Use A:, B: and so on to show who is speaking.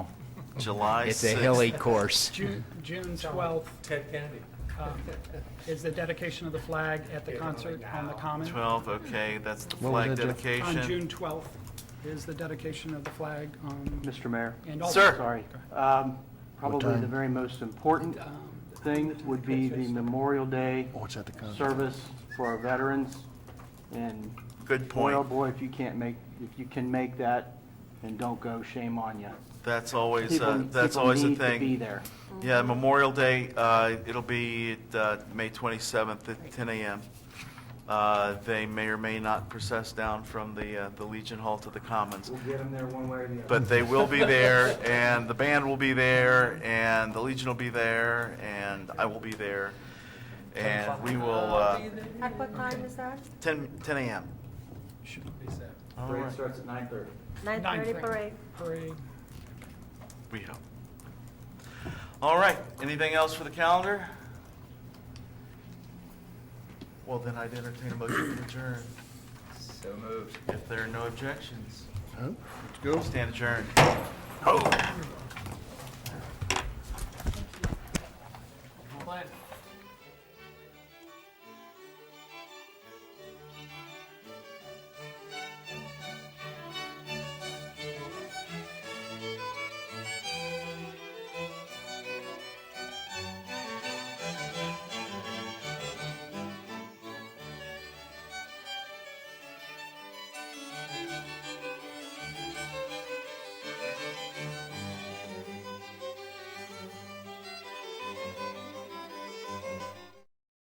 A: July 6th.
B: It's a hilly course.
C: June, June twelfth
D: Ted Kennedy.
C: um, is the dedication of the flag at the concert on the Common.
A: 12, okay, that's the
B: What was
A: flag
B: it, Jeff? On
C: On June
A: dedication.
C: twelfth is the dedication of the flag on,
E: Mr. Mayor,
C: and all.
A: Sir.
E: sorry. Um, Probably the very most important
F: Um,
E: thing would be the Memorial Day service for our veterans. And
A: Good
E: boy, oh
A: point.
E: boy, if you can't make, if you can make that, then don't go, shame on you.
A: That's always, uh, that's always a
E: People need to be
A: thing.
E: there.
A: Yeah, Memorial Day, uh, it'll be uh, May 27th at 10 a.m. Uh, They may or may not process down from the uh, the Legion Hall to the Commons.
F: We'll get them there one way or the other.
A: But they will be there, and the band will be there, and the Legion will be there, and I will be there. And we will, uh,
G: At what time is that?
A: 10 10 a.m. All
F: Parade
A: right,
F: starts at nine thirty.
G: Nine thirty
C: 9:30.
G: parade.
C: Parade.
A: we hope. All right, anything else for the calendar? Well, then I'd entertain a motion to adjourn,
D: So moved.
A: if there are no objections. Let's go. Stand adjourned.
C: Glenn.